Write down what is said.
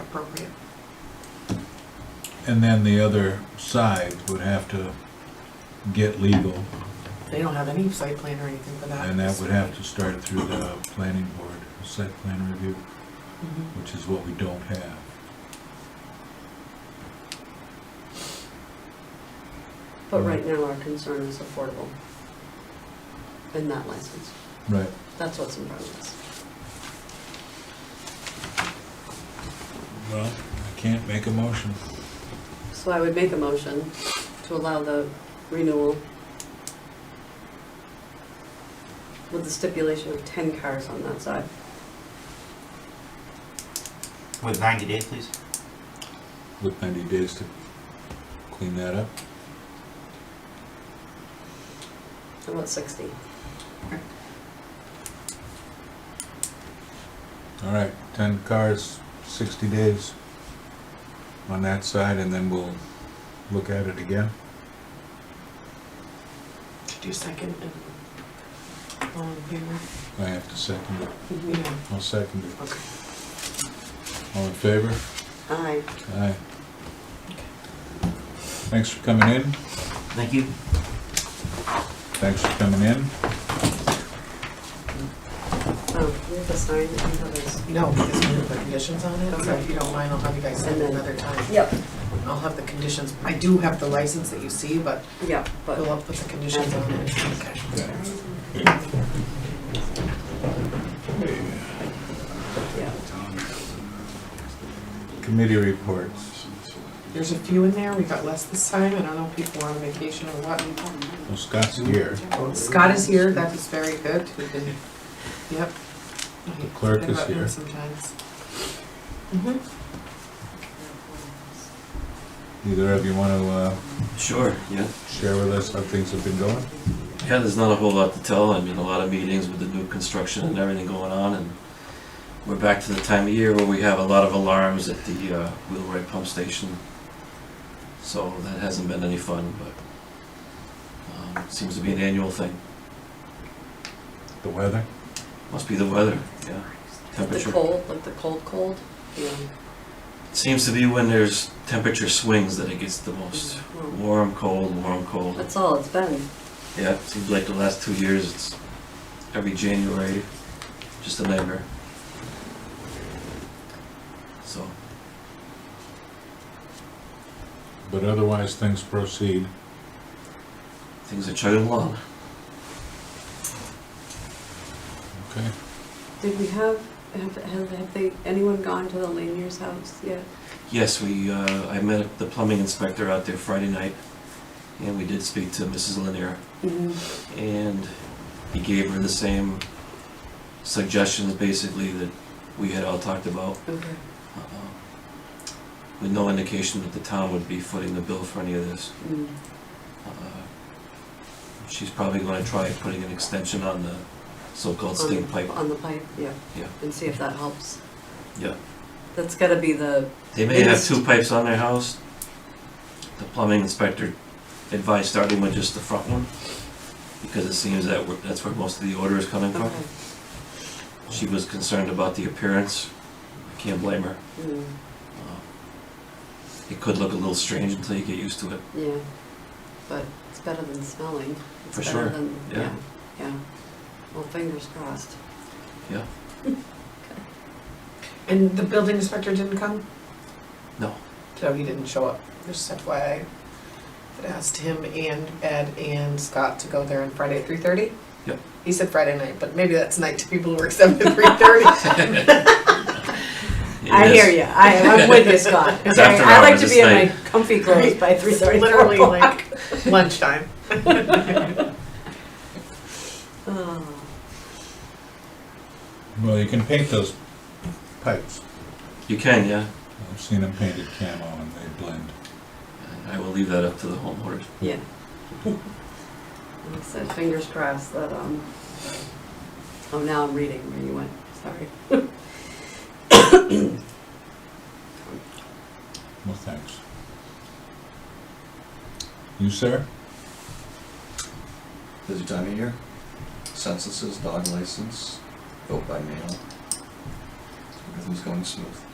appropriate. And then the other side would have to get legal, They don't have any site plan or anything for that. and that would have to start through the planning board, site plan review, Mhm. which is what we don't have. But right now, our concern is affordable. In that license, Right. that's what's in front of us. Well, I can't make a motion. So I would make a motion to allow the renewal with the stipulation of ten cars on that side. With 90 days, please. With ninety days to clean that up. How about sixty? All right, ten cars, sixty days on that side, and then we'll look at it again. Do you second it? All in favor? I have to second it. Mm-hmm. Yeah. I'll second it. Okay. All in favor? Aye. Aye. Thanks for coming in. Thank you. Thanks for coming in. Oh, we have to sign it, and others. No, because we have the conditions on it, so if Okay. you don't mind, I'll have you guys send it And then- another time. Yep, I'll have the conditions, I do have the license that you see, but yep, we'll but. have put the conditions on it. Okay. Yeah. Yeah. Committee reports. There's a few in there, we got less this time, I don't know if people are on vacation or what. Well, Scott's here. Scott is here, that is very good, we can, yep. The clerk is here. Sometimes. Mhm. Either of you want to uh, Sure, yeah. share with us how things have been going? Yeah, there's not a whole lot to tell. I mean, a lot of meetings with the new construction and everything going on, and we're back to the time of year where we have a lot of alarms at the uh, Wheelwright Pump Station. So that hasn't been any fun, but um, seems to be an annual thing. The weather? Must be the weather, yeah. The Temperature. cold, like the cold, cold, yeah. Seems to be when there's temperature swings that it gets the most. Well, Warm, cold, warm, cold. That's all it's been. Yeah, it seems like the last two years, it's every January, just a nightmare. So, But otherwise, things proceed. things are chugging along. Okay. Did we have, have, have have they, anyone gone to the Lanier's house yet? Yes, we, uh, I met the plumbing inspector out there Friday night, and we did speak to Mrs. Lanier, Mm-hmm. and he gave her the same suggestions basically that we had all talked about. Okay. uh, With no indication that the town would be footing the bill for any of this. Mm. Uh, She's probably gonna try putting an extension on the so-called On the- stink pipe. On the pipe, yeah. Yeah. And see if that helps. Yeah. That's gotta be the, They may have two pipes on their house. The plumbing inspector advised starting with just the front one, because it seems that we're- that's where most of the order is coming from. okay. She was concerned about the appearance. I can't blame her. Mm, Uh, It could look a little strange until you get used to it. Yeah, but it's better than smelling. It's For better sure, than- yeah. Yeah, well, fingers crossed. And the building inspector didn't come? No. No, he didn't show up, just FYI. I'd asked him and Ed and Scott to go there on Friday at three thirty? Yep. He said Friday night, but maybe that's night to people who work seven to three thirty. I It is- hear you, I, I'm with you, Scott. It's Okay, after I like hours, to it's be in my late. comfy clothes by three thirty, four Literally o'clock. like lunchtime. Oh, Well, you can paint those pipes. You can, yeah. I've seen them painted camo and they blend. I will leave that up to the homeowners. Yeah. Like I said, fingers crossed that, um, oh, now I'm reading where you went, sorry. Well, thanks. You, sir? Busy time of year. Censuses, dog license, vote by mail. Everything's going smooth.